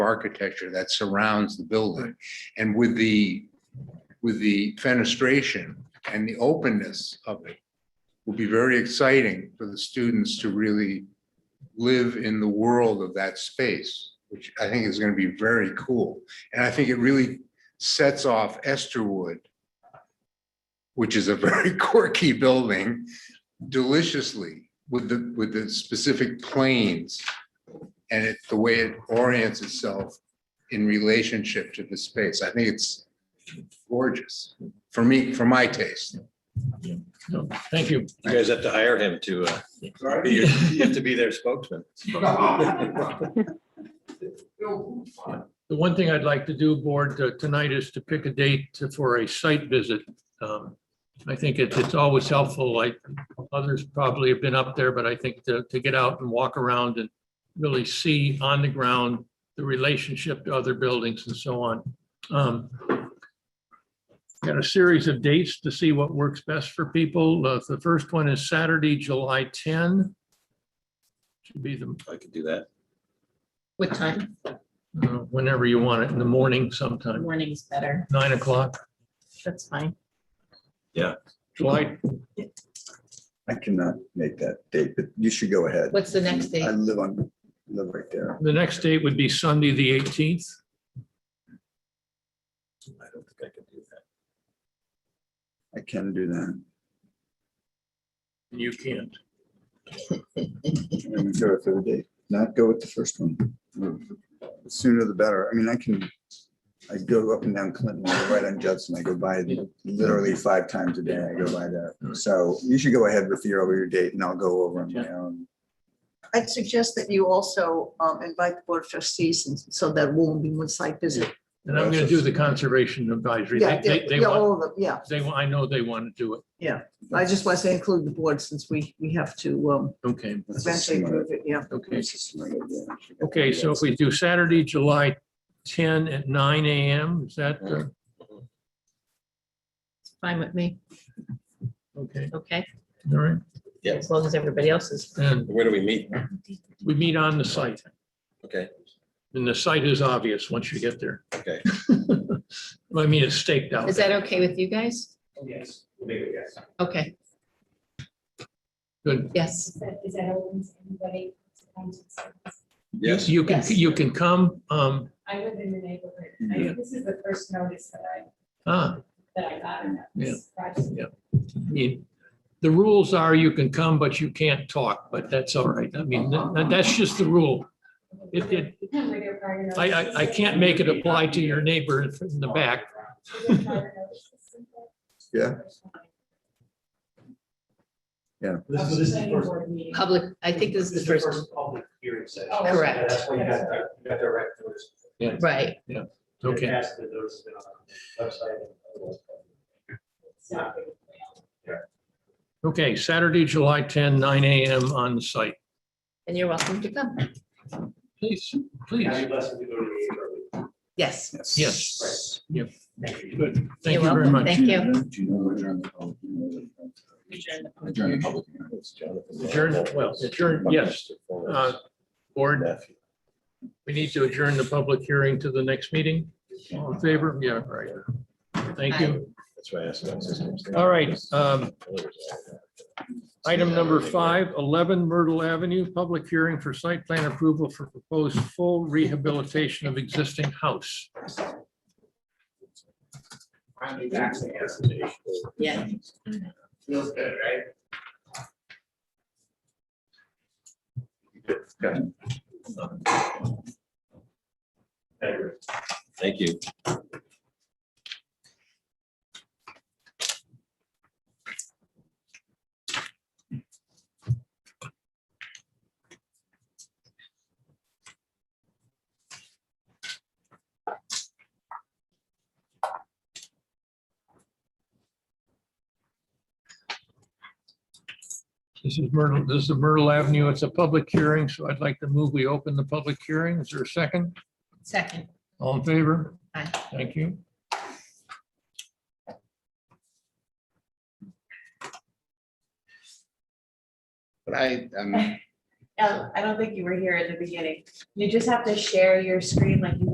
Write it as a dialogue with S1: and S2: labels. S1: architecture that surrounds the building. And with the, with the fenestration and the openness of it will be very exciting for the students to really live in the world of that space, which I think is going to be very cool. And I think it really sets off Esterwood, which is a very quirky building, deliciously with the, with the specific planes and it, the way it orients itself in relationship to the space. I think it's gorgeous for me, for my taste.
S2: No, Thank you.
S3: You guys have to hire him to, uh, be your- you have to be their spokesman.
S2: The one thing I'd like to do, board, uh, tonight is to pick a date to- for a site visit. Um, I think it's, it's always helpful, like others probably have been up there, but I think to, to get out and walk around and really see on the ground the relationship to other buildings and so on. Um, Got a series of dates to see what works best for people. Uh, The first one is Saturday, July 10. Should be the
S3: I could do that.
S4: What time?
S2: uh, whenever you want it, in the morning sometime,
S4: Morning's better.
S2: nine o'clock,
S4: That's fine.
S2: July,
S5: I cannot make that date, but you should go ahead.
S4: What's the next date?
S5: I live on, live right there.
S2: the next date would be Sunday, the eighteenth.
S3: I don't think I can do that.
S5: I can do that.
S2: You can't.
S5: I'm gonna Go with the date, not go with the first one. The Sooner the better. I mean, I can, I go up and down Clinton, I go right on Judson. I go by literally five times a day. I go by there. So you should go ahead with your, over your date and I'll go over on my own.
S6: I'd suggest that you also um, invite the board of trustees and so that won't be one site visit.
S2: And I'm gonna do the conservation advisory. They,
S6: Yeah,
S2: they,
S6: yeah,
S2: they
S6: yeah,
S2: want,
S6: all of them, yeah.
S2: they, want- I know they want to do it.
S6: I just want to include the board since we, we have to um,
S2: Okay,
S5: That's a
S6: eventually
S5: smart-
S6: prove it, yeah.
S2: okay.
S5: that's a smart idea.
S2: Okay, so if we do Saturday, July ten at nine AM, is that, uh,
S4: It's fine with me.
S2: okay,
S4: Okay,
S2: all right?
S4: as long as everybody else is.
S2: And
S3: Where do we meet?
S2: we meet on the site,
S3: Okay,
S2: and the site is obvious once you get there.
S3: okay.
S2: I mean, it's staked out.
S4: Is that okay with you guys?
S7: Yes, maybe, yes.
S4: Okay,
S2: Good.
S4: yes.
S8: Is that, is that open to anybody?
S3: Yes,
S2: You can,
S8: Yes.
S2: you can come, um,
S8: I live in the neighborhood. I mean, This is the first notice that I,
S2: ah,
S8: that I got in this project.
S2: I mean, the rules are you can come, but you can't talk, but that's all right. I mean, that, that's just the rule. It, it,
S8: With your prior notice.
S2: I, I, I can't make it apply to your neighbor in the back.
S8: With your prior notice.
S5: Yeah.
S7: This is, this is the first.
S4: Public, I think this is the first,
S7: Public hearing session.
S8: Oh,
S4: Correct.
S7: That's why you got, that- you got direct notice.
S4: right.
S2: Okay.
S7: And that's the notice has been on the website.
S8: So-
S2: Okay, Saturday, July 10, 9 AM on the site.
S4: And you're welcome to come.
S2: Please,
S7: Now
S2: please.
S7: you're blessed to go to the. eight early.
S4: Yes.
S2: Yes. Yep.
S7: Thank you.
S2: Good. Thank you
S4: You're
S2: very
S4: welcome.
S2: much.
S4: Thank you.
S5: Do you know where John- oh, you know where
S4: Adjourn.
S5: John- John Public- it's Jonathan.
S2: Adjourn, well, adjourn, yes. Uh, Board,
S3: Nephew.
S2: we need to adjourn the public hearing to the next meeting. All in favor? Yeah, right. Thank you.
S3: That's why I asked. about systems.
S2: All right, um, Item number five, 11 Myrtle Avenue, public hearing for site plan approval for proposed full rehabilitation of existing house.
S7: Finally, back to the answer.
S4: Yeah.
S7: Feels good, right? Thank you.
S3: Thank you.
S2: This is Myrtle, this is Myrtle Avenue. It's a public hearing, so I'd like to move we open the public hearing. Is there a second?
S4: Second.
S2: All in favor?
S4: Aye.
S2: Thank you.
S1: But I, um,
S8: um, I don't think you were here at the beginning. You just have to share your screen like you